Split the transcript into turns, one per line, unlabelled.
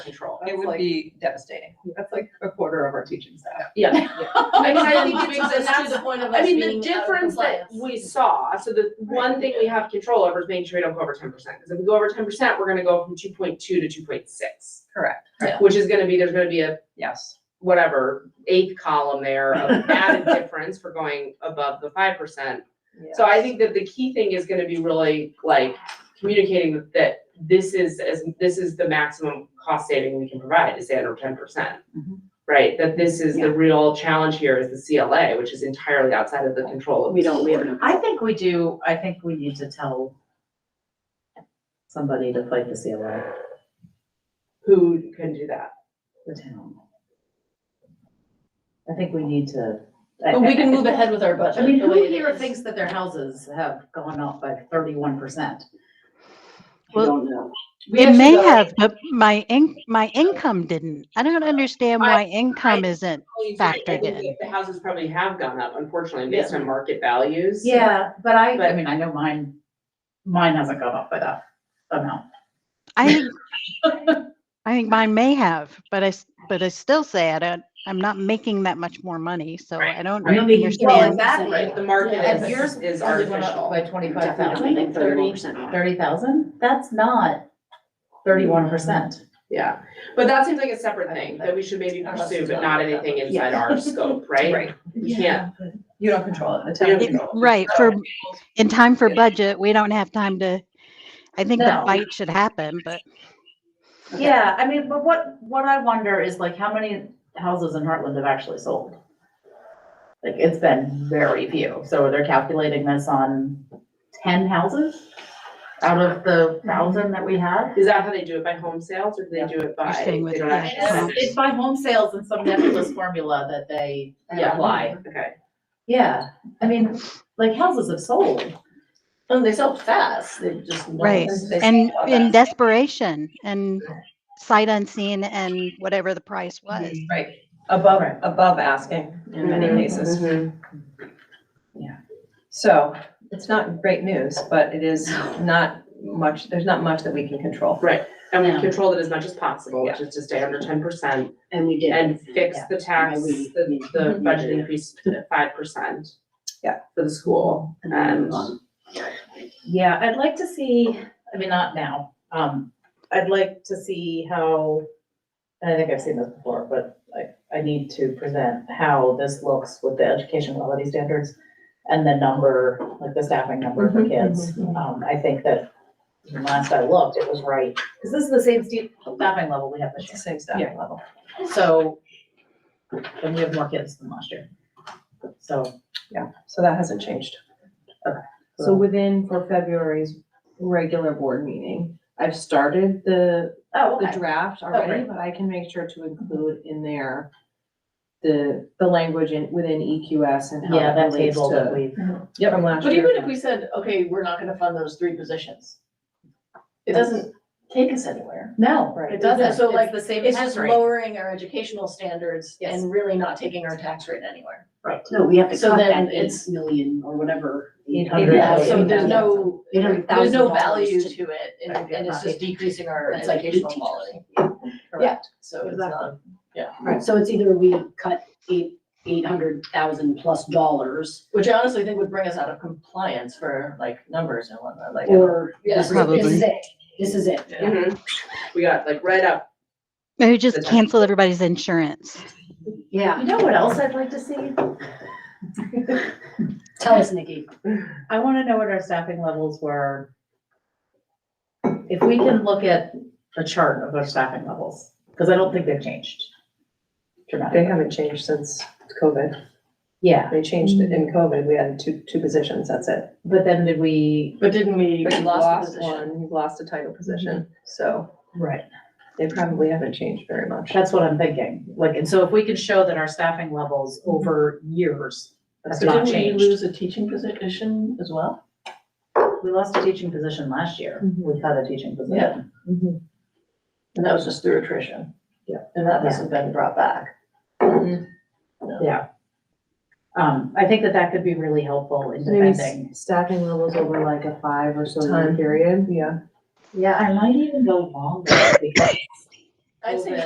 control.
It
It
would
would be devastating.
That's like a quarter of our teaching staff.
Yeah. I mean, I think
Brings
it's, and
us to
that's,
the point of
I
us
mean,
being
the
out of
difference that
uh, compliance.
we saw, so the one thing we have control over is making sure we don't go over ten percent. Because if we go over ten percent, we're gonna go from two point two to two point six,
Correct.
Yeah.
which is gonna be, there's gonna be a
Yes.
whatever eighth column there of added difference for going above the five percent. So I think that the key thing is gonna be really like communicating that this is as, this is the maximum cost saving we can provide is under ten percent.
Mhm.
Right, that this is the real challenge here is the CLA, which is entirely outside of the control of.
We
the
don't, we
board.
have
I think we do, I think we need to tell somebody to fight the CLA,
Who can do that?
the town. I think we need to. I-
But we
I-
can move ahead with our budget.
I mean,
the way
who
it
here
is.
thinks that their houses have gone up by thirty-one percent?
I
Well-
don't know.
We
It may
actually-
have, but my in, my income didn't. I don't understand
I-
why income isn't.
I
Factored
think
in.
The houses probably have gone up, unfortunately, based on market values.
Yeah, but I, I
But-
mean, I know mine, mine hasn't gone up by that amount.
I think, I think mine may have, but I, s- but I still say I don't, I'm not making that much more money, so
Right,
I don't
right.
Well,
understand.
exactly.
Right, the market
Yeah,
is,
and yours
is
probably went up
artificial.
by 25,000,
Definitely,
I think
thirty percent.
Thirty thousand? That's not thirty-one percent.
Yeah, but that seems like a separate thing that we should maybe
Unless
pursue,
it's
but
not
not
like that.
anything inside our scope, right? You can't,
You don't control it. The
We
town
don't
It-
controls.
Right, for, in time for budget, we don't have time to, I think the
No.
fight should happen, but
Yeah, I mean, but what, what I wonder is like, how many houses in Heartland have actually sold? Like, it's been very few, so they're calculating this on ten houses out of the thousand that we had?
is that how they do it by home sales or do they do it by?
staying with
they don't
the-
actually sell?
It's it's by home sales and some nebulous formula that they
Yeah.
apply.
Okay,
Yeah, I mean, like houses have sold, and they sold fast, they just.
Right, and in desperation and sight unseen and whatever the price was.
Right. Above,
Right.
above asking in many
Mm-hmm.
Mm-hmm.
Mhm.
cases. So it's not great news, but it is not much, there's not much that we can control.
and
Yeah.
we controlled it as much as possible, which is to stay under ten percent
And we did.
and fix
Yeah.
the tax,
Yeah, we-
the, the
Mhm.
budget increase to five percent.
Yeah.
For the school and.
Yeah, I'd like to see, I mean, not now, um, I'd like to see how, and I think I've seen this before, but I, I need to present how this looks with the education quality standards and the number, like the staffing number for kids. Um, I think that when last I looked, it was right, because this is the same stu- staffing level we have this
It's
year.
the same staffing level.
So, and we have more kids than last year. So,
So that hasn't changed.
So within for February's regular board meeting, I've started the,
oh,
the
okay.
draft already, but I can make sure to include in there the, the language in, within EQS and how
Yeah,
that
that
relates
table that
to
we've,
from last
But
year.
even if we said, okay, we're not gonna fund those three positions, it doesn't take us anywhere.
no,
It
right,
doesn't, so like,
the same
it's just lowering our educational standards
Yes.
and really not taking our tax rate anywhere.
No, we have to
So
cut
then
that eight
it's-
million or whatever.
Eight hundred
Yeah,
thousand.
so there's no,
Eight hundred
there's no
thousand dollars
value
to-
to it, and,
Right, yeah,
and it's
not
just decreasing our
Right, like
educational
teachers.
quality.
Correct.
So it's not,
So it's either we cut eight, eight hundred thousand plus dollars,
which I honestly think would bring us out of compliance for like numbers and whatnot, like.
or
Yes.
this is, this is
Probably.
it, this is it.
Mhm. We got like right up
Maybe
Is
just
that-
cancel everybody's insurance.
Yeah,
You know what else I'd like to see?
tell us, Nikki.
I wanna know what our staffing levels were. If we can look at a chart of our staffing levels, because I don't think they've changed
They
dramatically.
haven't changed since COVID.
Yeah,
They changed it in COVID. We had two, two positions, that's it.
but then did we?
But didn't we,
But
we
you
lost
lost
the position?
one, you lost a title position, so
Right.
they probably haven't changed very much.
That's what I'm thinking, like, and so if we could show that our staffing levels over years have not
But didn't we
changed.
lose a teaching position as well?
We lost a teaching position last year, we had a teaching position.
And that was just through attrition.
Yeah.
And that hasn't been brought back.
Um, I think that that could be really helpful in
Maybe
defending.
s- staffing levels over like a five or so year
Time.
period.
Yeah,
Yeah, I might even go longer because
I'd say